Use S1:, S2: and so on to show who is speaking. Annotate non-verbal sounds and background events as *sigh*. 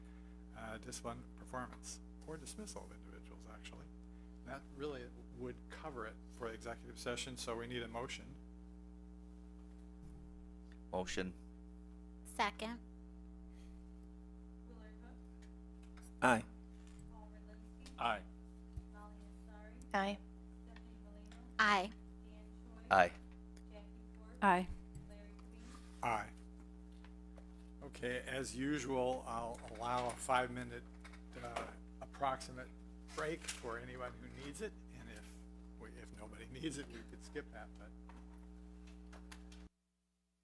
S1: uh, discipline, performance, or dismissal of individuals, actually. That really would cover it for executive session, so we need a motion.
S2: Motion.
S3: Second.
S2: Aye.
S1: Aye.
S4: Aye.
S3: Aye.
S2: Aye.
S4: Aye.
S1: Aye. Okay, as usual, I'll allow a five-minute uh, approximate *laughs* break for anyone who needs it, and if, we- if nobody needs it, we could skip that, but